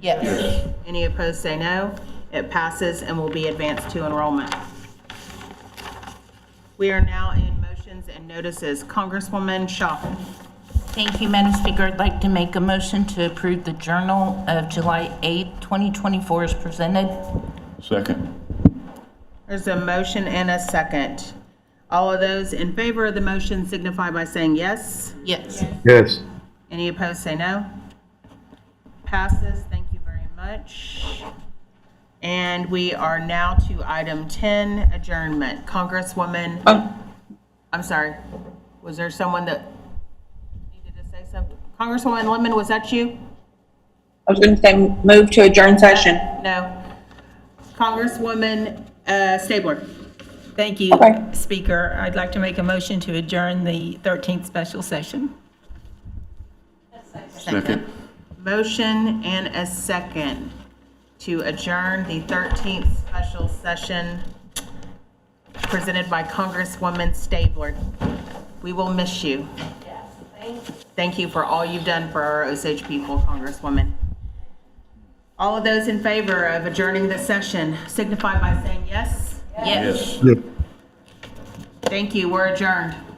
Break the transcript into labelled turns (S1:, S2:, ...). S1: Yes.
S2: Any opposed, say no. It passes and will be advanced to enrollment. We are now in motions and notices. Congresswoman Shaw.
S1: Thank you, Madam Speaker. I'd like to make a motion to approve the Journal of July 8, 2024 as presented.
S3: Second.
S2: There's a motion and a second. All of those in favor of the motion signify by saying yes.
S1: Yes.
S4: Yes.
S2: Any opposed, say no. Passes, thank you very much. And we are now to item 10, adjournment. Congresswoman, I'm sorry, was there someone that needed to say something? Congresswoman Lemon, was that you?
S5: I was going to say move to adjourn session.
S2: No. Congresswoman uh, Stabler?
S6: Thank you,
S5: Okay.
S6: Speaker. I'd like to make a motion to adjourn the 13th special session.
S3: Second.
S2: Motion and a second to adjourn the 13th special session presented by Congresswoman Stabler. We will miss you. Thank you for all you've done for our Osage people, Congresswoman. All of those in favor of adjourning the session signify by saying yes.
S1: Yes.
S3: Yes.
S4: Yes.
S2: Thank you, we're adjourned.